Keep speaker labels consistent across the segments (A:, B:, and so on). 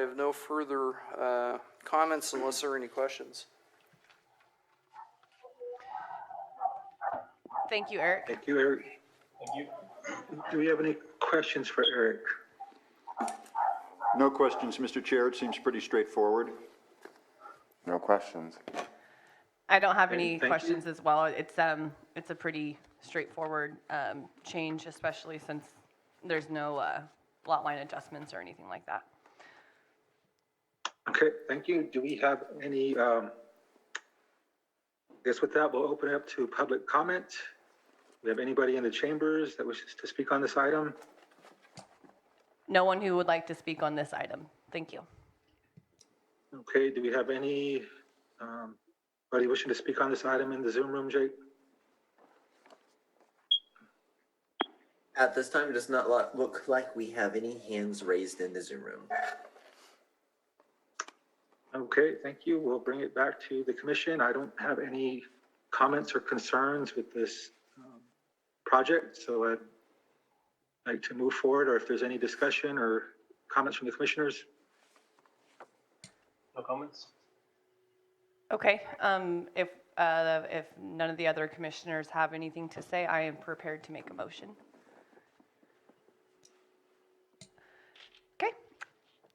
A: I have no further uh, comments unless there are any questions.
B: Thank you, Eric.
C: Thank you, Eric. Thank you. Do we have any questions for Eric?
D: No questions, Mr. Chair. It seems pretty straightforward.
E: No questions.
B: I don't have any
C: thank you.
B: questions as well. It's, um, it's a pretty straightforward, um, change, especially since there's no, uh, lot line adjustments or anything like that.
C: Okay, thank you. Do we have any, um, I guess with that, we'll open it up to public comment. Do we have anybody in the chambers that wishes to speak on this item?
B: No one who would like to speak on this item. Thank you.
C: Okay, do we have any, um, anybody wishing to speak on this item in the Zoom room, Jake?
F: At this time, it does not lo- look like we have any hands raised in the Zoom room.
C: Okay, thank you. We'll bring it back to the commission. I don't have any comments or concerns with this um, project, so I'd like to move forward, or if there's any discussion or comments from the commissioners.
G: No comments?
B: Okay, um, if, uh, if none of the other commissioners have anything to say, I am prepared to make a motion. Okay.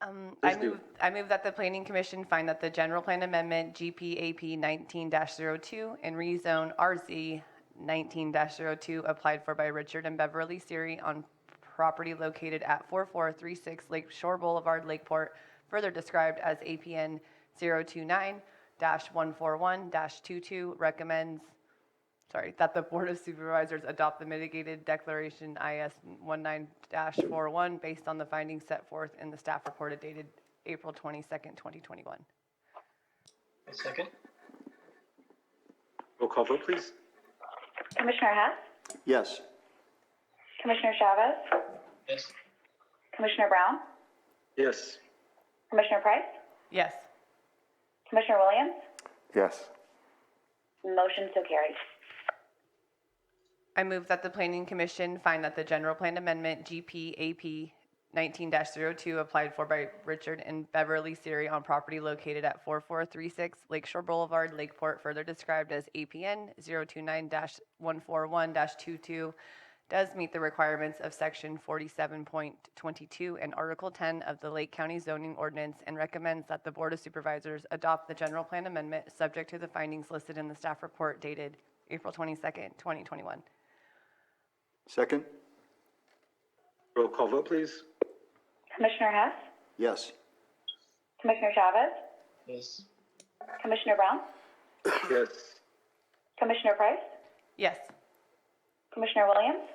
B: Um, I
C: Please do.
B: move, I move that the planning commission find that the general plan amendment GPAP nineteen 2 and rezone RZ nineteen 2 applied for by Richard and Beverly Siri on property located at four four three six Lake Shore Boulevard, Lakeport, further described as APN 29 one four one 22 recommends sorry, that the Board of Supervisors adopt the mitigated declaration IS 19-41 based on the findings set forth in the staff report dated April 22nd, 2021.
G: I second.
C: Roll call vote, please.
H: Commissioner Hess,
D: Yes.
H: Commissioner Chavez,
G: Yes.
H: Commissioner Brown,
C: Yes,
H: Commissioner Price,
B: Yes.
H: Commissioner Williams,
E: Yes.
H: motion so carried.
B: I move that the Planning Commission find that the General Plan Amendment GPAP 19-02 applied for by Richard and Beverly Siri on property located at 4436 Lakeshore Boulevard, Lakeport, further described as APN 029-141-22, does meet the requirements of Section 47.22 and Article 10 of the Lake County Zoning Ordinance and recommends that the Board of Supervisors adopt the General Plan Amendment subject to the findings listed in the staff report dated April 22nd, 2021.
D: Second?
C: roll call vote, please.
H: Commissioner Hess,
D: Yes.
H: Commissioner Chavez,
G: Yes.
H: Commissioner Brown,
C: Yes,
H: Commissioner Price,
B: Yes.
H: Commissioner Williams,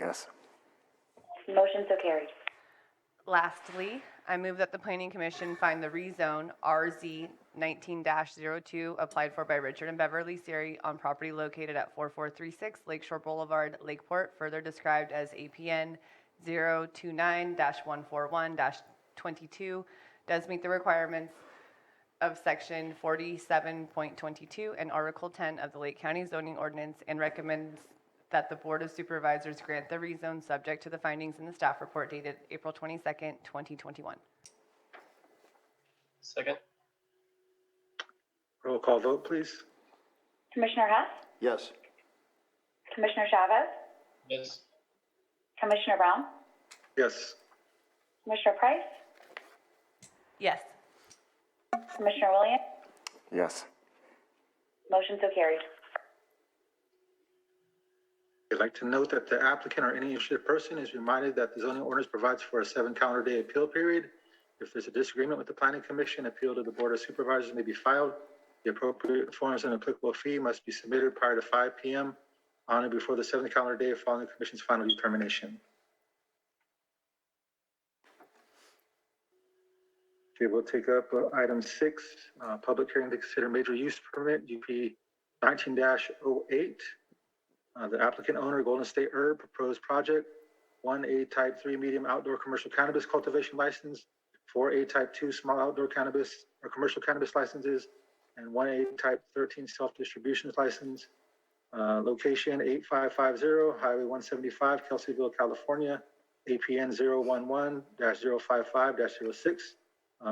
E: Yes.
H: motion so carried.
B: Lastly, I move that the Planning Commission find the rezone RZ 19-02 applied for by Richard and Beverly Siri on property located at 4436 Lakeshore Boulevard, Lakeport, further described as APN 029-141-22, does meet the requirements of Section 47.22 and Article 10 of the Lake County Zoning Ordinance and recommends that the Board of Supervisors grant the rezone subject to the findings in the staff report dated April 22nd, 2021.
G: Second.
C: roll call vote, please.
H: Commissioner Hess,
D: Yes.
H: Commissioner Chavez,
G: Yes.
H: Commissioner Brown,
C: Yes,
H: Commissioner Price,
B: Yes.
H: Commissioner Williams,
E: Yes.
H: motion so carried.
C: I'd like to note that the applicant or any interested person is reminded that the zoning ordinance provides for a seven calendar day appeal period. If there's a disagreement with the planning commission, appeal to the board of supervisors may be filed. The appropriate forms and applicable fee must be submitted prior to five PM on or before the seventh calendar day following the commission's final determination. Okay, we'll take up uh, item six, uh, public hearing to consider major use permit, UP nineteen oh 8 uh, The applicant owner, Golden State Herb, proposed project, 1A Type 3 medium outdoor commercial cannabis cultivation license, 4A Type 2 small outdoor cannabis or commercial cannabis licenses, and 1A Type 13 self-distribution license. Uh, Location 8550 Highway 175, Kelseyville, California, APN 011-055-06.